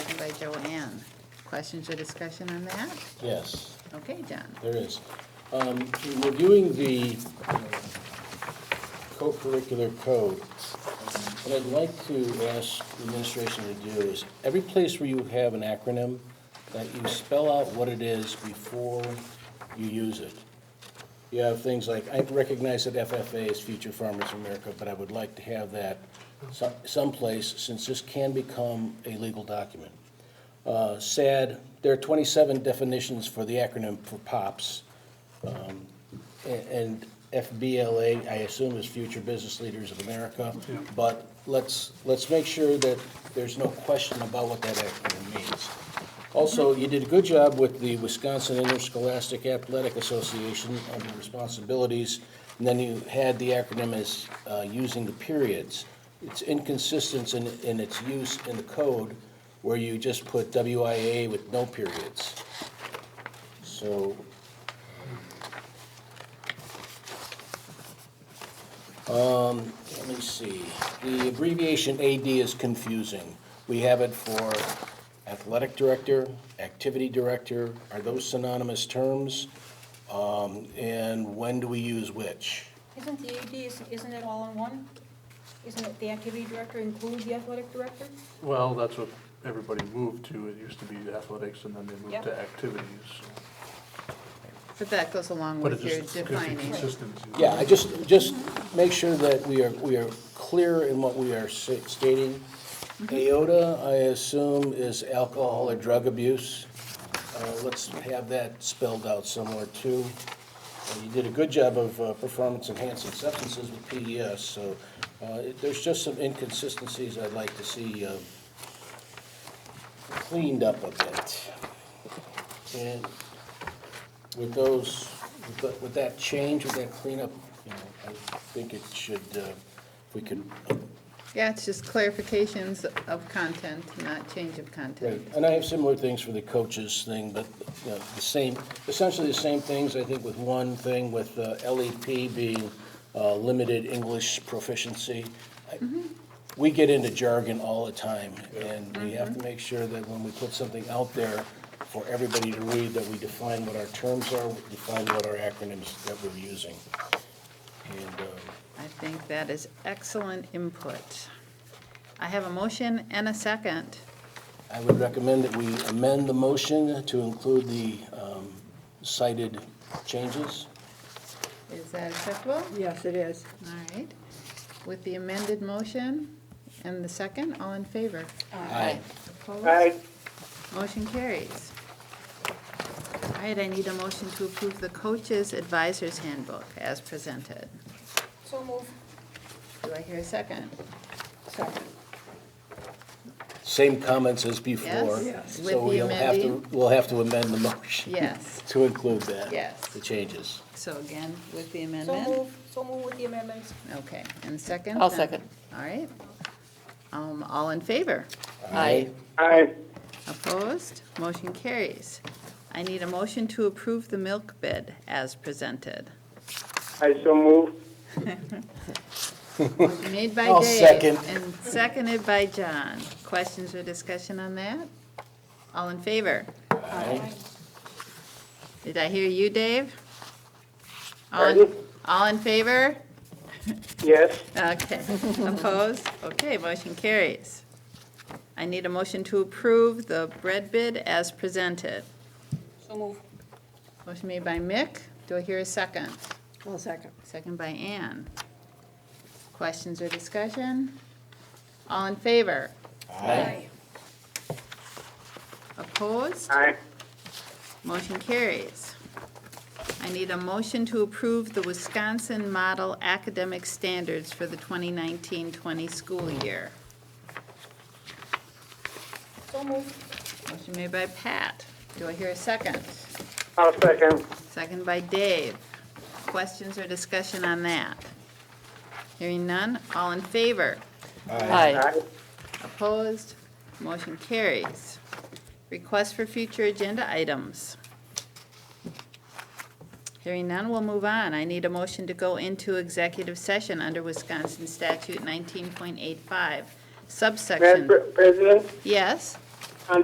Joanne. Questions or discussion on that? Yes, Okay, John. there is. Um, in Reviewing the uh, co-curricular code, what I'd like to ask the administration to do is, every place where you have an acronym, that you spell out what it is before you use it. You have things like, I recognize that FFA is Future Farmers of America, but I would like to have that some- someplace, since this can become a legal document. Uh, SAD, there are 27 definitions for the acronym for POPs. Um, a- And FBLA, I assume, is Future Business Leaders of America. But let's, let's make sure that there's no question about what that acronym means. Also, you did a good job with the Wisconsin Interscholastic Athletic Association on the responsibilities, and then you had the acronym as uh, using the periods. It's inconsistent in, in its use in the code, where you just put WIA with no periods. So, um, let me see, the abbreviation AD is confusing. We have it for athletic director, activity director, are those synonymous terms? Um, and when do we use which? Isn't the AD, is- isn't it all in one? Isn't it the activity director includes the athletic director? Well, that's what everybody moved to. It used to be athletics and then they moved Yep. to activities. But that goes along But with it your just gives you defining. consistency. Yeah, I just, just make sure that we are, we are clear in what we are sa- stating. AOTA, I assume, is alcohol or drug abuse. Uh, Let's have that spelled out somewhere too. And You did a good job of uh, performance enhancing substances with PES, so uh, it- there's just some inconsistencies I'd like to see uh, cleaned up a bit. And with those, with tha- with that change, with that cleanup, you know, I think it should, uh, if we could, Yeah, it's just clarifications of content, not change of right. content. And I have similar things for the coaches thing, but, you know, the same, essentially the same things, I think, with one thing, with uh, LEP being uh, limited English proficiency. I- We get into jargon all the time, and we have to make sure that when we put something out there for everybody to read, that we define what our terms are, we define what our acronyms that we're using. And, um, I think that is excellent input. I have a motion and a second. I would recommend that we amend the motion to include the um, cited changes. Is that acceptable? Yes, it is. All right. With the amended motion and the second, all in favor? Aye. Opposed? Motion carries. All right, I need a motion to approve the Coaches Advisors Handbook as presented. So move. Do I hear a second? Second. Same comments as before. Yes, Yes. with So the we'll have to, amending. we'll have to amend the motion. Yes. To include that. Yes. The changes. So again, with the So amendment? move, so move with the amendments. Okay, and second? I'll then? second. All right. Um, All in favor? Aye. Opposed? Motion carries. I need a motion to approve the milk bid as presented. I so move. Made by Dave. I'll second. And seconded by John. Questions or discussion on that? All in favor? Aye. Did I hear you, Dave? All in- Pardon? All in favor? Yes, Okay. Opposed? Okay, motion carries. I need a motion to approve the bread bid as presented. So move. Motion made by Mick. Do I hear a second? I'll second. Second by Ann. Questions or discussion? All in favor? Aye. Opposed? aye. Motion carries. I need a motion to approve the Wisconsin Model Academic Standards for the 2019-20 school year. So move. Motion made by Pat. Do I hear a second? I'll second. Second by Dave. Questions or discussion on that? Hearing none, all in favor? Aye. Aye. Opposed? Motion carries. Request for future agenda items. Hearing none, we'll move on. I need a motion to go into executive session under Wisconsin Statute 19.85 Madam subsection. Pre- President, Yes?